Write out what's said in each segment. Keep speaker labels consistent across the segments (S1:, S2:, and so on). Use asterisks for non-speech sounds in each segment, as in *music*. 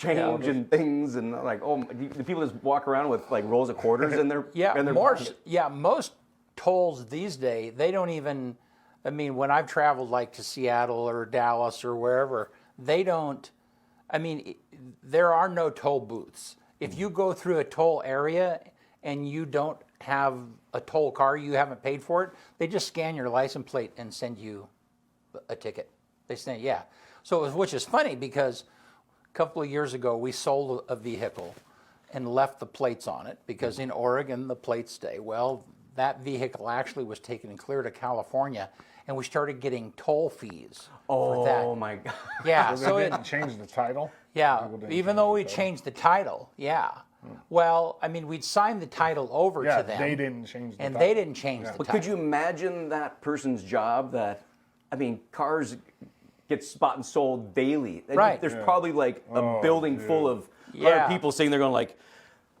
S1: change and things and like oh my- the the people just walk around with like rolls of quarters in their
S2: *laughs* Yeah,
S1: in their
S2: more,
S1: pocket.
S2: s- yeah, most tolls these days, they don't even, I mean, when I've traveled like to Seattle or Dallas or wherever, they don't, I mean, i- there are no toll booths. If you go through a toll area and you don't have a toll car, you haven't paid for it, they just scan your license plate and send you a ticket. They say, yeah. So, it was, which is funny because a couple of years ago, we sold a vehicle and left the plates on it
S3: Mm-hmm.
S2: because in Oregon, the plates stay. Well, that vehicle actually was taken and cleared to California, and we started getting toll fees for
S1: Oh
S2: that.
S1: my god!
S2: Yeah,
S3: They
S2: so it,
S3: didn't change the title.
S2: yeah,
S3: People
S2: even
S3: didn't change
S2: though
S3: the
S2: we
S3: title.
S2: changed the title, yeah. Well, I mean, we'd signed the title over
S3: Hmm. yeah,
S2: to them,
S3: they didn't change the
S2: and
S3: title.
S2: they didn't change the
S1: But
S2: title.
S1: could you imagine that person's job? That I mean, cars get spot and sold daily. And
S2: Right.
S1: There's probably like a building full of
S2: Yeah.
S1: other people sitting there going like,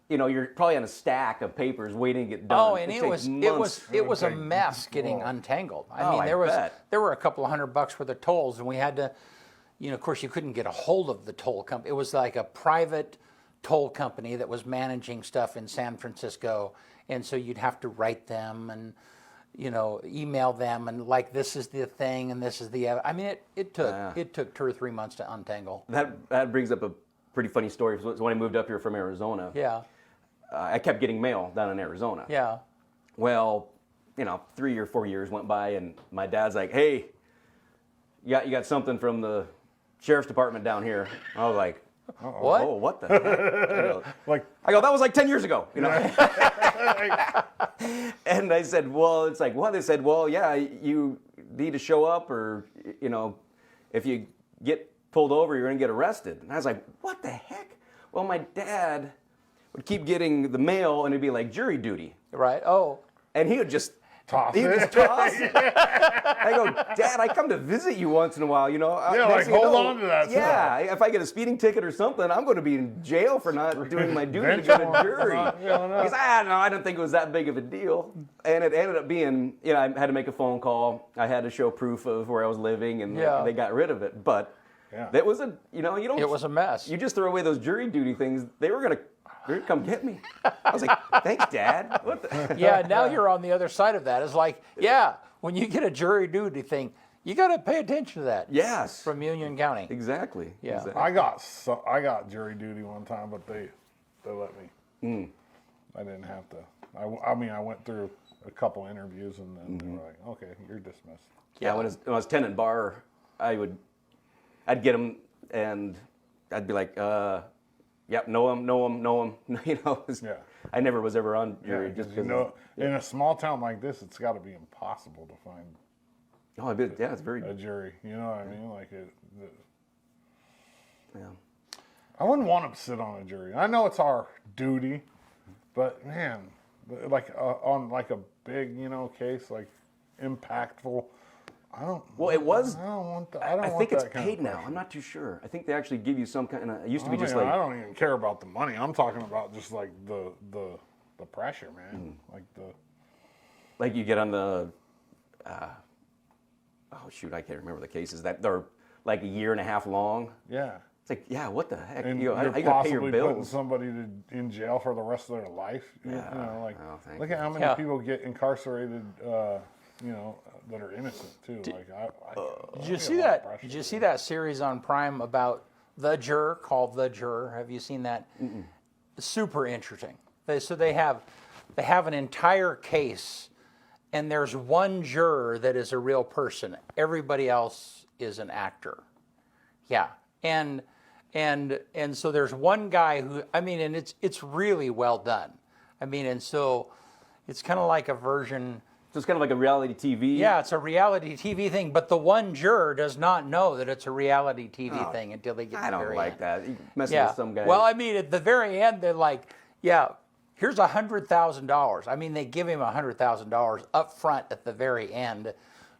S1: you know, you're probably on a stack of papers waiting to get done.
S2: Oh, and
S1: It
S2: it,
S1: takes
S2: was it
S1: months.
S2: was it was a
S3: take-
S2: mess getting untangled. I
S1: Oh,
S2: mean,
S1: I
S2: there was
S1: bet.
S2: there were a couple of hundred bucks worth of tolls, and we had to, you know, of course, you couldn't get a hold of the toll company. It was like a private toll company that was managing stuff in San Francisco, and so you'd have to write them and, you know, email them and like this is the thing and this is the. ev-" I mean, it it took it took two or three months to untangle.
S1: that that brings up a pretty funny story. So when I moved up here from Arizona,
S2: Yeah,
S1: uh, I kept getting mail down in Arizona.
S2: yeah.
S1: Well, you know, three or four years went by, and my dad's like, "Hey, you got you got something from the sheriff's department down here." I was like,
S2: What?
S1: "Oh, what the?" Heck? I, go,
S3: Like,
S1: I go, "That was like ten years ago," you know. *laughs* and I said, "Well, it's like what?" They said, "Well, yeah, you need to show up, or you know, if you get pulled over, you're gonna get arrested." And I was like, "What the heck?" Well, my dad would keep getting the mail, and it'd be like jury duty
S2: Right. Oh,
S1: and he would just
S3: Toss
S1: He would
S3: it.
S1: just
S3: *laughs*
S1: toss it. I go, Dad, I come to visit you once in a while, you know. Uh,
S3: Yeah,
S1: next
S3: like,
S1: thing you
S3: hold
S1: know,
S3: on to that
S1: Yeah, if I get a speeding ticket or something, I'm going to be in jail for not doing my duty to get a
S3: Vengeful.
S1: jury. Because I don't know, I didn't think it was that big of a deal, and it ended up being, you know, I had to make a phone call. I had to show proof of where I was living, and
S2: Yeah.
S1: they got rid of it. But
S3: Yeah.
S1: that was a, you know, you don't.
S2: it was a mess.
S1: You just throw away those jury duty things. They were going to. They're gonna come get me. I was like, "Thanks, Dad." What
S2: *laughs*
S1: the?
S2: yeah, now you're on the other side of that. It's like, yeah, when you get a jury duty thing, you got to pay attention to that.
S1: Yes.
S2: From Union County.
S1: Exactly.
S2: Yeah.
S1: Exactly.
S3: I got so, I got jury duty one time, but they they let me. Mm. I didn't have to. I, w- I mean, I went through a couple interviews, and then they were like, "Okay, you're dismissed."
S1: Yeah, when I, was, when I was tenant bar, I would, I'd get them and I'd be like, uh, yep, know him, know him, know him. *laughs* You know, it's-
S3: Yeah.
S1: I never was ever on jury
S3: Yeah,
S1: just
S3: 'cause you
S1: because.
S3: know, in a small town like this, it's got to be impossible to find
S1: oh, I bet, yeah, it's very.
S3: a jury. You know what I mean? Like, it, the,
S1: yeah.
S3: I wouldn't want to sit on a jury. I know it's our duty, but man, like uh, on like a big, you know, case like impactful. I don't.
S1: Well, it was.
S3: I don't want that. I don't
S1: I
S3: want
S1: think it's
S3: that kind of
S1: paid now. I'm not too sure. I think they actually give you some kind. of, It used to
S3: I,
S1: be
S3: mean,
S1: just
S3: I
S1: like.
S3: don't even care about the money. I'm talking about just like the the the pressure, man.
S1: Hmm.
S3: Like the
S1: like you get on the, uh, oh shoot, I can't remember the cases that they're like a year and a half long.
S3: yeah.
S1: It's like, yeah, what the heck?
S3: And
S1: you know, how-
S3: you're
S1: how you gotta pay
S3: possibly
S1: your
S3: putting
S1: bills.
S3: somebody to, in jail for the rest of their life. You- you
S1: Yeah,
S3: know, like
S1: no, thank
S3: look at how many
S2: Yeah.
S3: people get incarcerated. Uh, you know, that are innocent too. Like I. I
S2: Did you
S3: Oh, I
S2: see
S3: get a lot of
S2: that?
S3: pressure.
S2: Did you see that series on Prime about the juror called the juror? Have you seen that? Super interesting. They, so they have they have an entire case, and there's one juror that is a real person. Everybody else is an actor. Yeah, and and and so there's one guy who I mean, and it's it's really well done. I mean, and so it's kind of like a version.
S1: So it's kind of like a reality TV.
S2: Yeah, it's a reality TV thing, but the one juror does not know that it's a reality TV
S1: Oh,
S2: thing until they get. to
S1: I
S2: the
S1: don't
S2: very
S1: like
S2: end.
S1: that. You messing
S2: Yeah.
S1: with some guy.
S2: Well, I mean, at the very end, they're like, "Yeah, here's a hundred thousand dollars." I mean, they give him a hundred thousand dollars up front at the very end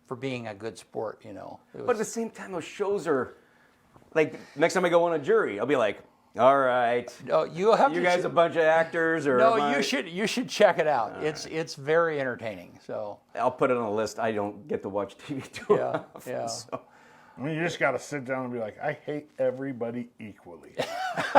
S2: for being a good sport. You know. It
S1: but at
S2: was-
S1: the same time, those shows are like next time I go on a jury, I'll be like, all right,
S2: no, you oh, have
S1: you
S2: to
S1: guys
S2: che-
S1: a bunch of actors, or am
S2: no,
S1: I-
S2: you should you should check it out. it's it's very entertaining. So
S1: I'll put it on a list. I don't get to watch TV too
S2: Yeah,
S1: often,
S2: yeah.
S1: so
S3: I mean, you just got to sit down and be like, I hate everybody equally.